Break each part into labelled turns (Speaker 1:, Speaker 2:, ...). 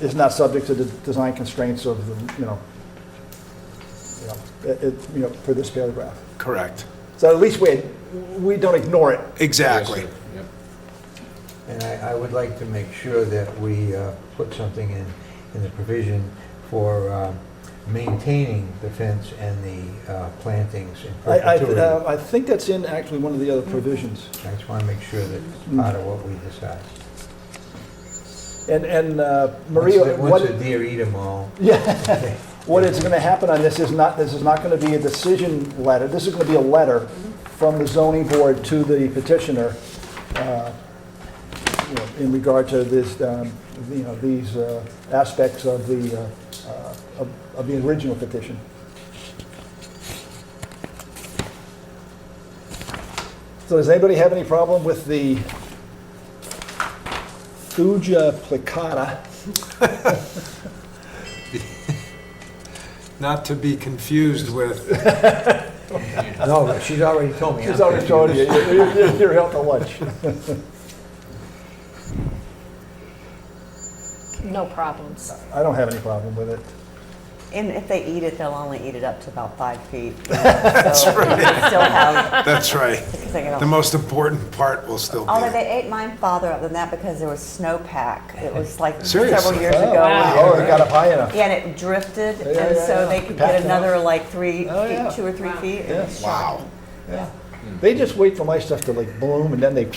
Speaker 1: is not subject to the design constraints of the, you know, you know, it, it- you know, for this paragraph.
Speaker 2: Correct.
Speaker 1: So at least we, we don't ignore it.
Speaker 2: Exactly.
Speaker 3: Yep.
Speaker 4: And I, I would like to make sure that we uh, put something in, in the provision for um, maintaining the fence and the uh, plantings in
Speaker 1: I, I, uh,
Speaker 4: perpetuity.
Speaker 1: I think that's in actually one of the other provisions.
Speaker 4: I just want to make sure that it's part of what we decide.
Speaker 1: And, and uh,
Speaker 4: Once
Speaker 1: Maria,
Speaker 4: the- Once
Speaker 1: what,
Speaker 4: the deer eat them all.
Speaker 1: yeah,
Speaker 4: okay.
Speaker 1: what is going to happen on this is not, this is not going to be a decision letter. This is going to be a letter from the zoning board to the petitioner uh, you know, in regard to this, um, you know, these uh, aspects of the, uh, uh, of of the original petition. So does anybody have any problem with the thuja plicata?
Speaker 2: Not to be confused with,
Speaker 4: No, but Oh, she's already told me.
Speaker 1: She's
Speaker 4: I'm
Speaker 1: already told you, You're- you're you're out to lunch.
Speaker 5: No problems.
Speaker 1: I don't have any problem with it.
Speaker 6: And if they eat it, they'll only eat it up to about five feet. That's right. Still have,
Speaker 2: that's right.
Speaker 6: because they
Speaker 2: The
Speaker 6: can,
Speaker 2: most important part will still be
Speaker 6: although
Speaker 2: there.
Speaker 6: they ate mine farther up than that because there was snowpack. It was like
Speaker 2: Seriously?
Speaker 6: several years ago.
Speaker 5: Wow.
Speaker 1: Oh, it got up high enough.
Speaker 6: Yeah, and it drifted,
Speaker 1: Yeah,
Speaker 6: and
Speaker 1: yeah,
Speaker 6: so
Speaker 1: yeah.
Speaker 6: they could
Speaker 1: Packed
Speaker 6: get
Speaker 1: it
Speaker 6: another like three
Speaker 1: Oh, yeah.
Speaker 6: feet, two or three feet. It was
Speaker 1: Yes.
Speaker 6: shocking. Yeah.
Speaker 1: They just wait for my stuff to like bloom and then they,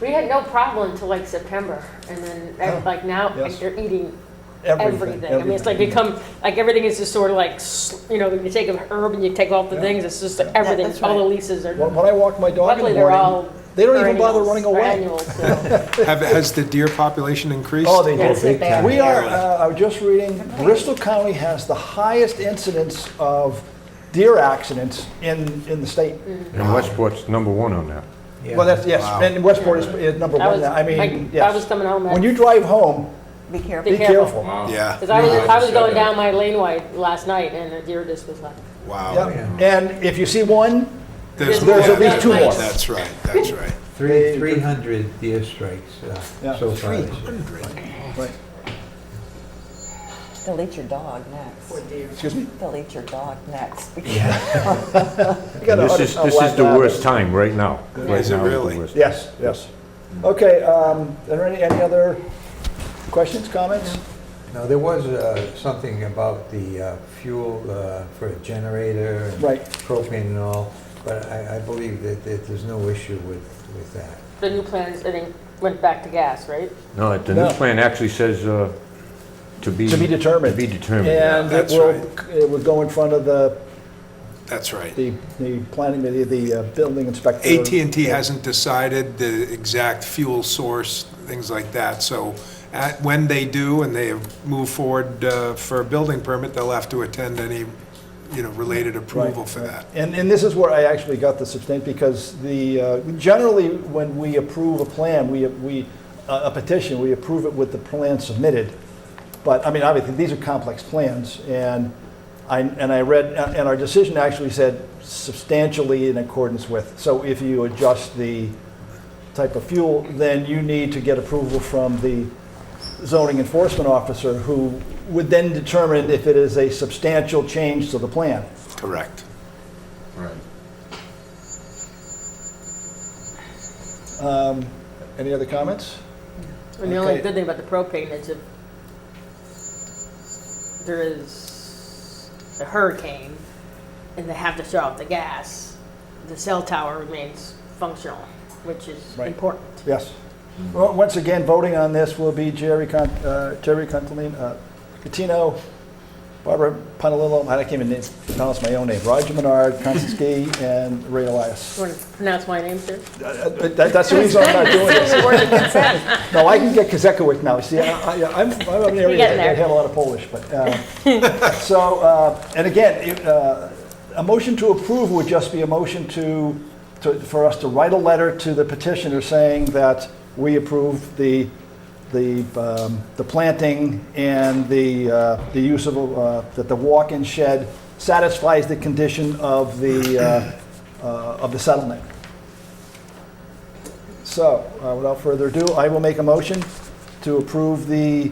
Speaker 5: We had no problem until like September, and then ev- like now
Speaker 1: Oh. Yes.
Speaker 5: you're eating
Speaker 1: everything.
Speaker 5: everything. I mean, it's like become like everything is just sort of like s- you know you take a herb and you take off the
Speaker 1: Yeah.
Speaker 5: things. It's just like everything.
Speaker 6: that's
Speaker 5: All the
Speaker 6: right.
Speaker 5: leases are.
Speaker 1: When when I walk my dog in the
Speaker 5: luckily, they're
Speaker 1: morning,
Speaker 5: all.
Speaker 1: they don't even bother
Speaker 5: perennials
Speaker 1: running
Speaker 5: or
Speaker 1: away.
Speaker 5: Annuals, so.
Speaker 2: Have, has the deer population increased?
Speaker 1: Oh, they
Speaker 5: Yeah,
Speaker 1: do.
Speaker 5: it's like they are.
Speaker 1: We are, uh, I was just reading, Bristol County has the highest incidence of deer accidents in, in the state.
Speaker 5: Mm.
Speaker 7: And Westport's number one on that.
Speaker 4: Yeah.
Speaker 1: Well, that's, yes,
Speaker 2: Wow.
Speaker 1: and Westport is, is number
Speaker 5: I
Speaker 1: one
Speaker 5: was.
Speaker 1: now. I mean,
Speaker 5: like, I was
Speaker 1: yes.
Speaker 5: coming home.
Speaker 1: When you drive home,
Speaker 6: Be careful.
Speaker 1: be
Speaker 5: Be careful.
Speaker 1: careful.
Speaker 3: Wow.
Speaker 2: Oh, Yeah,
Speaker 5: because I was,
Speaker 3: No, I
Speaker 5: I was
Speaker 3: just said
Speaker 5: going
Speaker 3: that.
Speaker 5: down my laneway last night, and a deer just was like.
Speaker 2: wow.
Speaker 1: Yep. And if you see one,
Speaker 5: There's
Speaker 2: yeah,
Speaker 5: at least two
Speaker 2: that's-
Speaker 5: more.
Speaker 2: That's right, that's right.
Speaker 4: Three, 300 deer strikes uh,
Speaker 1: Yeah.
Speaker 4: so far this year.
Speaker 1: right,
Speaker 6: They'll eat your dog next.
Speaker 1: excuse me?
Speaker 6: They'll eat your dog next. because-
Speaker 1: You got a-
Speaker 7: This is,
Speaker 1: a
Speaker 7: this
Speaker 1: black
Speaker 7: is the
Speaker 1: lab.
Speaker 7: worst time, right now. Right
Speaker 2: Is it
Speaker 7: now is the
Speaker 2: really?
Speaker 7: worst.
Speaker 1: Yes, yes. Okay, um, are there any, any other questions, comments?
Speaker 4: Now, there was uh, something about the uh, fuel uh, for a generator. and
Speaker 1: Right.
Speaker 4: Propane and all, but I, I believe that, that there's no issue with, with that.
Speaker 5: The new plans, I think, went back to gas, right?
Speaker 7: No, the
Speaker 1: No.
Speaker 7: new plan actually says, uh, to be.
Speaker 1: To be determined.
Speaker 7: To be determined.
Speaker 1: And it
Speaker 2: That's
Speaker 1: will,
Speaker 2: right.
Speaker 1: it will go in front of the,
Speaker 2: That's right.
Speaker 1: the, the planning, the, the uh, building inspector.
Speaker 2: at and t hasn't decided the exact fuel source, things like that. So at- when they do and they move forward uh, for a building permit, they'll have to attend any, you know, related approval for that.
Speaker 1: And, and this is where I actually got the substantive, because the, uh, generally, when we approve a plan, we, we, uh, a a petition, we approve it with the plan submitted. But, I mean, obviously, these are complex plans, and I, and I read, and our decision actually said substantially in accordance with. So if you adjust the type of fuel, then you need to get approval from the zoning enforcement officer, who would then determine if it is a substantial change to the plan.
Speaker 2: Correct.
Speaker 3: Right.
Speaker 1: Um, Any other comments?
Speaker 5: And the only
Speaker 1: Okay.
Speaker 5: good thing about the propane is if there is a hurricane and they have to shut off the gas, the cell tower remains functional, which is
Speaker 1: Right.
Speaker 5: important.
Speaker 1: Yes. Well, once again, voting on this will be Jerry, Con- uh, Jerry Contalino, uh, Catino, Barbara Panalillo, I can't even name- pronounce my own name, Roger Menard, Constance Gay, and Ray Elias.
Speaker 5: Do you want to pronounce my name, sir?
Speaker 1: Uh, uh, that- That's the reason I'm not doing this. No, I can get Kazekowicz now, see, I- I- I'm, I'm an area
Speaker 5: getting there.
Speaker 1: that have a lot of Polish, but, uh, so, uh, and again, it, uh, a motion to approve would just be a motion to, to- for us to write a letter to the petitioner saying that we approve the, the, um, the planting and the, uh, the use of, uh, that the walk-in shed satisfies the condition of the, uh, uh, of the settlement. So, uh, without further ado, I will make a motion to approve the